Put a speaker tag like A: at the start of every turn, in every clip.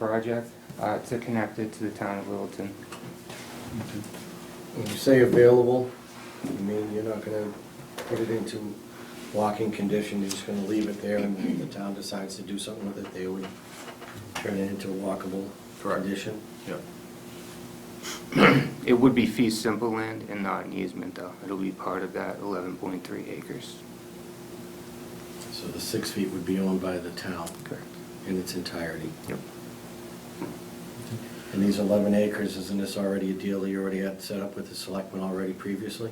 A: project uh, to connect it to the town of Littleton.
B: When you say available, you mean you're not gonna put it into walking condition, you're just gonna leave it there, and if the town decides to do something with it, they would turn it into a walkable
C: Correct.
B: condition?
C: Yeah.
A: It would be fee simple land and not an easement though. It'll be part of that 11.3 acres.
B: So the six feet would be owned by the town
A: Correct.
B: in its entirety.
A: Yep.
B: And these eleven acres, isn't this already a deal that you already had set up with the selectmen already previously?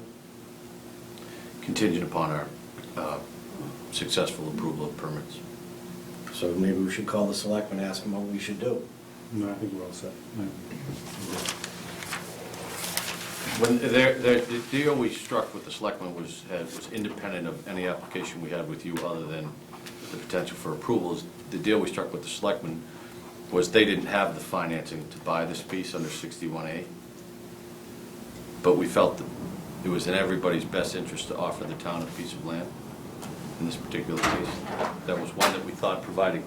C: Contingent upon our uh, successful approval of permits.
B: So maybe we should call the selectmen, ask them what we should do.
D: No, I think we're all set.
C: When, there, there- the deal we struck with the selectmen was, had, was independent of any application we had with you other than the potential for approvals. The deal we struck with the selectmen was they didn't have the financing to buy this piece under sixty-one A. But we felt that it was in everybody's best interest to offer the town a piece of land in this particular case. That was one that we thought providing,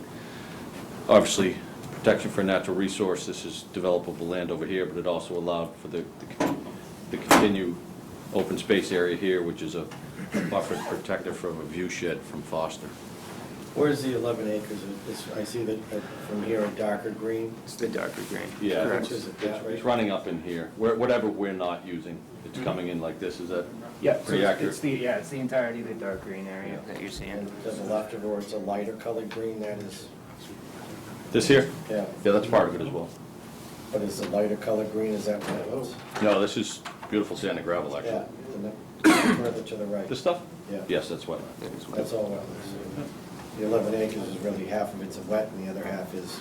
C: obviously, protection for natural resource, this is developable land over here, but it also allowed for the, the- the continued open space area here, which is a buffer protector from a view shed from Foster.
B: Where's the eleven acres? This- I see that uh, from here a darker green.
A: It's the darker green.
C: Yeah.
A: Correct.
B: Which is it, that
C: It's
B: right?
C: running up in here, Where- whatever we're not using, it's
B: Mm-hmm.
C: coming in like this, is that
A: Yeah, so
C: pretty
A: it's- it's
C: accurate?
A: the, yeah, it's the entirety of the dark green area
C: Yeah.
A: that you're seeing.
B: And there's a left of, or it's a lighter colored green that is,
C: This here?
B: yeah,
C: Yeah, that's part of it as well.
B: but is the lighter colored green, is that what it was?
C: No, this is beautiful sand and gravel,
B: Yeah,
C: actually.
B: and then further to the right.
C: This stuff?
B: Yeah.
C: Yes, that's wetland.
A: That is what-
B: That's all wetlands. The eleven acres is really half of it's a wet and the other half is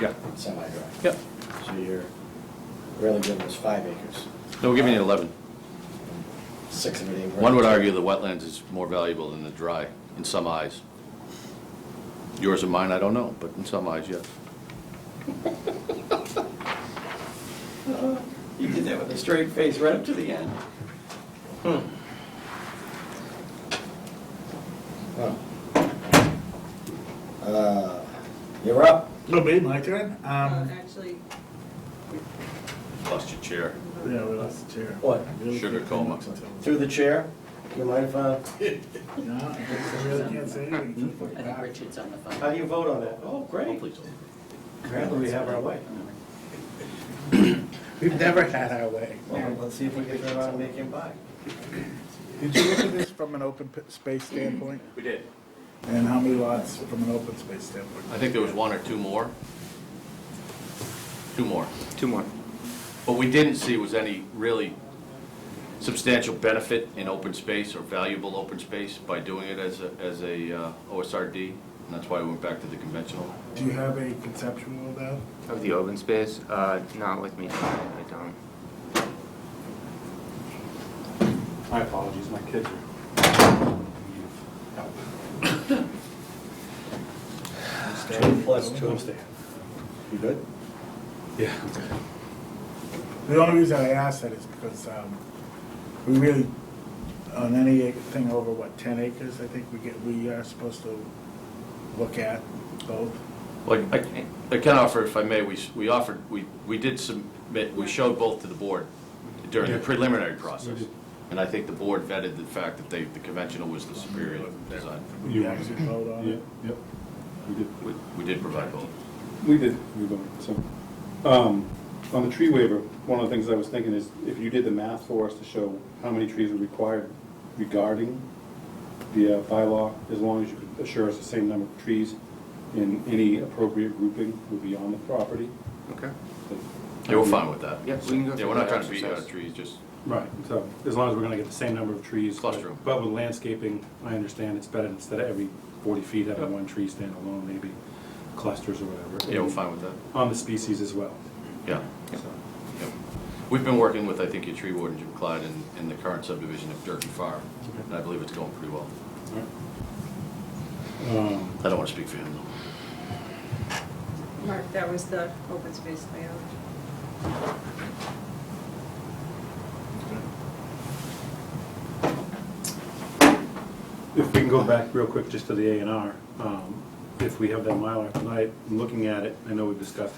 C: Yeah.
B: semi-dry.
C: Yep.
B: So you're really giving us five acres,
C: No, we're giving you 11.
B: six of it ain't.
C: One would
B: worth
C: argue the wetlands is more valuable than the dry, in some eyes. Yours and mine, I don't know, but in some eyes, yes.
E: You did that with a straight face right up to the end.
B: Hmm. it. Wow. Uh, You're up.
D: No, be my turn?
F: Uh,
D: Um,
F: Actually,
C: Lost your chair.
D: yeah, we lost the chair.
B: What?
D: Really
C: Sugar
D: can't
C: coma.
D: say much
B: Through the chair, you mind if uh, I,
D: until- No, I guess I really can't say anything.
E: I think Richard's on the phone.
B: how do you vote on that? Oh,
C: Oh,
B: great.
C: please.
B: Apparently we have our way.
D: We've never had our way.
B: Well, let's see if we can turn around and make him buy.
D: Did you look at this from an open p- space standpoint?
C: We did.
D: And how many lots from an open space standpoint?
C: I think there was one or two more. Two more.
A: Two more.
C: What we didn't see was any really substantial benefit in open space or valuable open space by doing it as a, as a uh, OSRD, and that's why we went back to the conventional.
D: Do you have a conceptual of that?
A: Of the open space, uh, not with me, I don't.
G: My apologies, my kids
B: Two plus two.
G: are.
B: You good?
G: Yeah.
D: The only reason I ask that is because, um, we really, on any ac- thing over, what, ten acres, I think we get, we are supposed to look at both.
C: Like, I I can offer, if I may, we, s- we offered, we, we did submit, we showed both to the board during the preliminary process. And I think the board vetted the fact that they, the conventional was the superior design.
D: Would you actually vote on
G: Yeah,
D: it?
G: yep. We did,
C: We we did provide both.
G: we did, we voted, so. Um, on the tree waiver, one of the things I was thinking is if you did the math for us to show how many trees are required regarding the uh, bylaw, as long as you could assure us the same number of trees in any appropriate grouping would be on the property.
A: Okay.
C: Yeah, we're fine with that.
A: Yeah, we can go
C: Yeah, we're
A: through
C: not
A: that
C: trying to beat you out of
A: exercise.
C: trees, just,
G: Right, so as long as we're gonna get the same number of trees.
C: Cluster 'em.
G: But with landscaping, I understand it's better instead of every forty feet having one tree stand alone, maybe clusters or whatever.
C: yeah, we're fine with that.
G: On the species as well.
C: Yeah.
G: so.
C: Yep. We've been working with, I think, your tree warden, Jim Clyde, in, in the current subdivision of Durkey Farm, and I believe it's going pretty well.
G: Um,
C: I don't want to speak for him, though.
F: Mark, that was the open space layout.
G: If we can go back real quick just to the A and R, um, if we have that Mylar tonight, looking at it, I know we've discussed